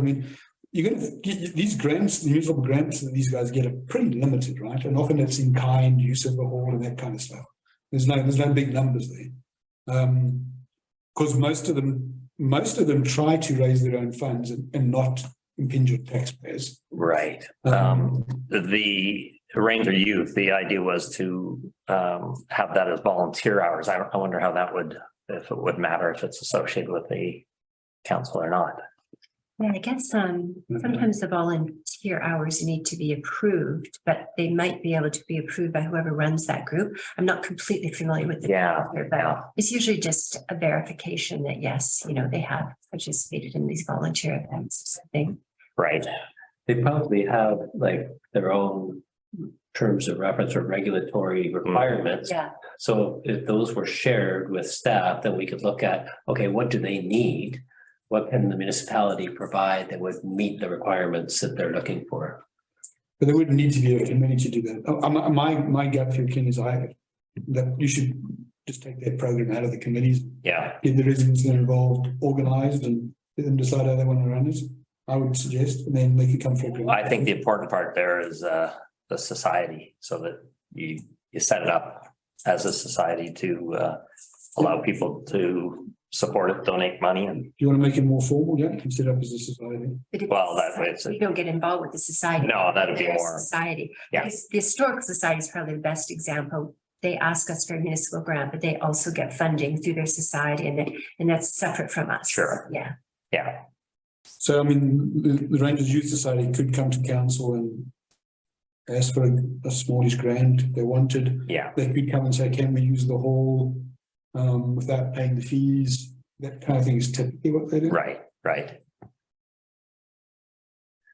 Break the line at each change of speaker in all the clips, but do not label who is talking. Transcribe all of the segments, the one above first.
I mean, you're going to these grants, the municipal grants that these guys get are pretty limited, right? And often it's in kind, use of the hall, and that kind of stuff. There's no there's no big numbers there, because most of them most of them try to raise their own funds and, and not impinge on taxpayers.
Right.
Um,
Um, the Ranger Youth, the idea was to um have that as volunteer hours. I I wonder how that would, if it would matter if it's associated with the council or not.
Yeah, I guess um
Mhm.
sometimes the volunteer hours need to be approved, but they might be able to be approved by whoever runs that group. I'm not completely familiar with the.
Yeah,
calendar,
yeah.
But it's usually just a verification that yes, you know, they have participated in these volunteer events or something.
Right.
They probably have like their own terms of reference or
Hmm.
regulatory requirements.
Yeah,
So if those were shared with staff, then we could look at, okay, what do they need? What can the municipality provide that would meet the requirements that they're looking for?
But there wouldn't need to be a committee to do that. Uh, uh, my my gut feel, Ken, is I that you should just take that program out of the committees,
Yeah,
get the residents that are involved organised, and let them decide how they want to run it. I would suggest, and then they could come for a grant.
I think the important part there is uh the society so that you you set it up as a society to uh allow people to support it, donate money and,
Do you want to make it more formal? Yeah, you can set up as a society.
but if
well, that way it's,
We don't get involved with the society.
no, that'd be
their
more,
Society.
Yeah.
Because The Historical Society is probably the best example. They ask us for a municipal grant, but they also get funding through their society and that, and that's separate from us.
Sure.
Yeah.
yeah,
So I mean, the, the Rangers Youth Society could come to council and ask for a, a smallish grant if they wanted.
yeah,
They could come and say, can we use the hall, um, without paying the fees? That kind of thing is typically what they do.
right, right.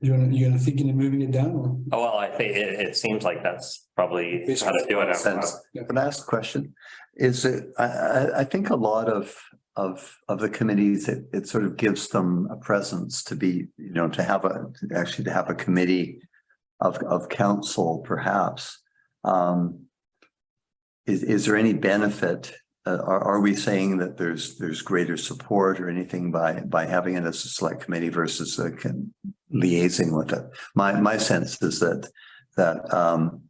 You're, you're thinking of moving it down or?
Oh, well, I think it, it seems like that's probably how to do it.
Sense. But last question is it, I, I, I think a lot of, of, of the committees, it, it sort of gives them a presence to be, you know, to have a, actually to have a committee of, of council perhaps. Um, is, is there any benefit? Uh, are, are we saying that there's, there's greater support or anything by, by having it as a select committee versus uh, con- liaising with it? My, my sense is that, that, um,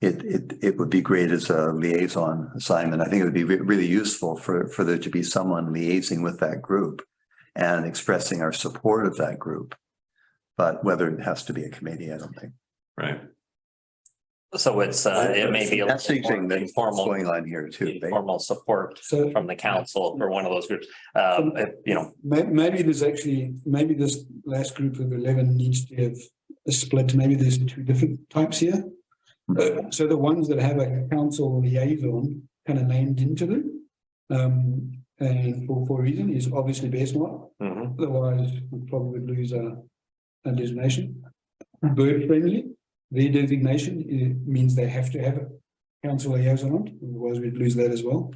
it, it, it would be great as a liaison assignment. I think it would be re- really useful for, for there to be someone liaising with that group and expressing our support of that group. But whether it has to be a committee, I don't think.
Right.
So it's, uh, it may be a little more
Messaging that's
informal,
going on here too. right?
informal support
So
from the council for one of those groups. Um, if, you know,
may, maybe there's actually, maybe this last group of eleven needs to have a split. Maybe there's two different types here. Uh, so the ones that have a council liaison kind of named into them. Um, and for, for a reason is obviously Bestmont,
mhm,
Mm-hmm.
otherwise we probably would lose a, a designation. Bird friendly, their designation uh, means they have to have a council liaison on, it, otherwise we'd lose that as well.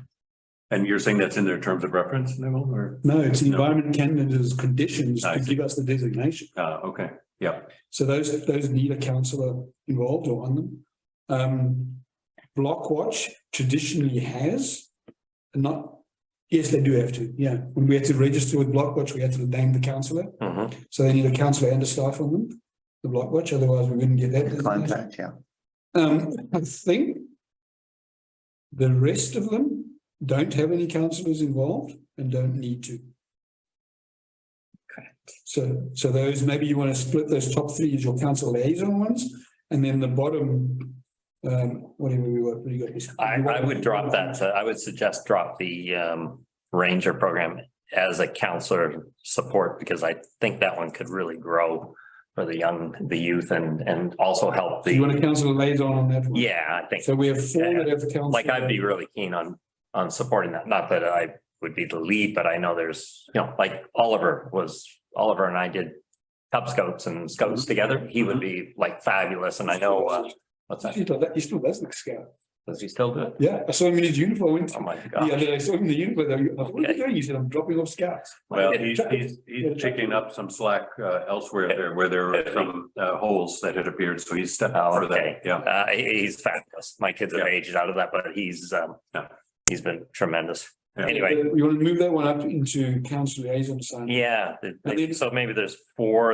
And you're saying that's in their terms of reference, Neville, or,
No, it's the
No.
Environment Canada's conditions
I
to
see.
give us the designation.
uh, okay, yeah.
So those, those need a councillor involved or on them. Um, Block Watch traditionally has, not, yes, they do have to, yeah. When we had to register with Block Watch, we had to name the councillor,
mhm.
so they need a councillor and a staff on them, the Block Watch, otherwise we wouldn't get that. designation.
Contact, yeah.
Um, I think the rest of them don't have any councillors involved and don't need to.
Correct.
So, so those, maybe you want to split those top three as your council liaison ones, and then the bottom, um, whatever we were, we got this.
I, I would drop that. uh, I would suggest drop the, um, ranger program as a counselor support because I think that one could really grow for the young, the youth and, and also help
So you want
the,
a council liaison on that one?
yeah, I think.
So we have four that have the council.
like I'd be really keen on, on supporting that, not that I would be the lead, but I know there's, you know, like Oliver was, Oliver and I did Cub Scouts and
Mm-hmm.
Scouts together, he would be like fabulous, and I know, uh, what's that,
He still- He still does look scared.
does he still do it?
Yeah, I saw him in his uniform. I went to-
Oh my
The other
god,
day, I saw him in the uniform. I went, What are
Okay.
you doing? He said, I'm dropping off scouts.
Well, he's, he's, he's picking up some slack, uh, elsewhere there where there were some, uh, holes that had appeared. So he's stepped
Oh,
out of
okay.
that. Yeah.
uh, he- he's fabulous, my kids have
Yeah.
aged out of that, but he's, um,
Yeah.
he's been tremendous.
Yeah.
Anyway,
Uh, You want to move that one up into council liaison assignment?
yeah, th-
And
th-
then-
so maybe there's four